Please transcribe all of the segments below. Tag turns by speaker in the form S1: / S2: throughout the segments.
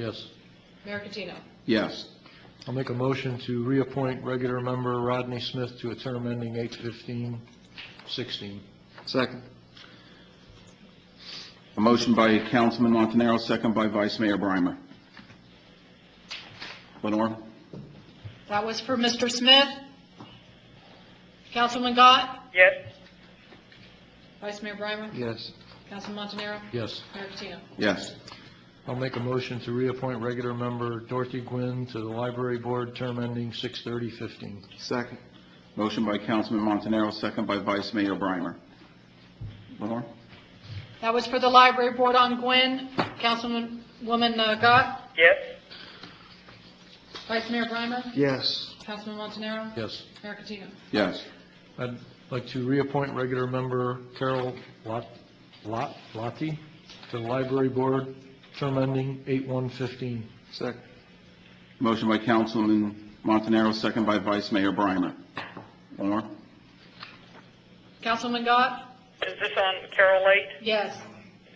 S1: Yes.
S2: Mayor Catino.
S3: Yes.
S1: I'll make a motion to reappoint regular member Rodney Smith to a term ending 8/15/16.
S3: Second. A motion by Councilman Montanaro, second by Vice Mayor Breimer. Lenore?
S2: That was for Mr. Smith. Councilman Gott,
S4: yes,
S2: Vice Mayor Breimer,
S1: Yes.
S2: Councilman Montanaro,
S1: Yes.
S2: Mayor Catino.
S3: Yes.
S1: I'll make a motion to reappoint regular member Dorothy Gwynn to the library board, term ending 6/30/15.
S3: Second. Motion by Councilman Montanaro, second by Vice Mayor Breimer. Lenore?
S2: That was for the library board on Gwen. Councilwoman uh, Gott,
S4: yes,
S2: Vice Mayor Breimer,
S1: Yes.
S2: Councilman Montanaro,
S1: Yes.
S2: Mayor Catino.
S3: Yes.
S1: I'd like to reappoint regular member Carol Lot, Lot, Lottie to the library board, term ending 8/1/15.
S3: Second. Motion by Councilman Montanaro, second by Vice Mayor Breimer. Lenore?
S2: Councilman Gott,
S4: is this on Carol Lake?
S2: yes.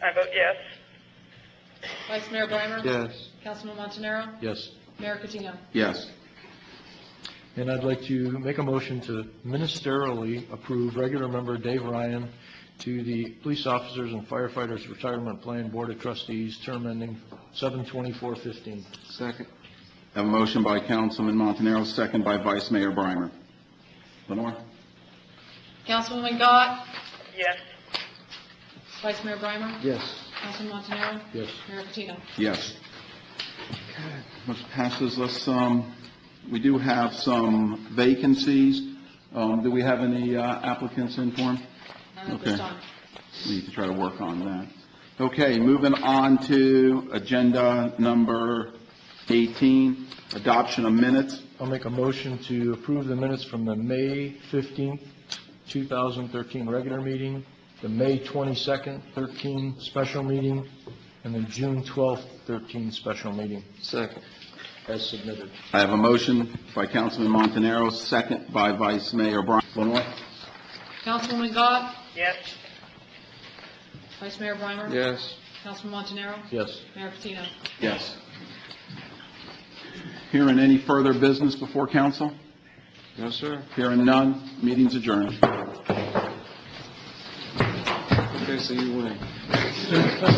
S4: I vote yes,
S2: Vice Mayor Breimer.
S1: Yes.
S2: Councilman Montanaro,
S1: Yes.
S2: Mayor Catino.
S3: Yes.
S1: And I'd like to make a motion to ministerially approve regular member Dave Ryan to the Police Officers and Firefighters Retirement Plan Board of Trustees, term ending 7/24/15.
S3: Second. Have a motion by Councilman Montanaro, second by Vice Mayor Breimer. Lenore?
S2: Councilwoman Gott,
S4: yes,
S2: Vice Mayor Breimer,
S1: Yes.
S2: Councilman Montanaro,
S1: Yes.
S2: Mayor Catino.
S3: Yes. Motion passes. Let's, um, we do have some vacancies. Um, do we have any uh, applicants in form?
S2: None at this
S3: Okay.
S2: time.
S3: We need to try to work on that. Okay, moving on to agenda number 18, adoption of minutes.
S1: I'll make a motion to approve the minutes from the May 15th, 2013 regular meeting, the May 22nd, 13 special meeting, and the June 12th, 13 special meeting. Second. As submitted.
S3: I have a motion by Councilman Montanaro, second by Vice Mayor Brian. Lenore?
S2: Councilwoman Gott,
S4: yes,
S2: Vice Mayor Breimer.
S1: Yes.
S2: Councilman Montanaro,
S1: Yes.
S2: Mayor Patino.
S3: Yes. Hearing any further business before council?
S1: No, sir.
S3: Hearing none, meeting's adjourned.
S1: Okay, so you win.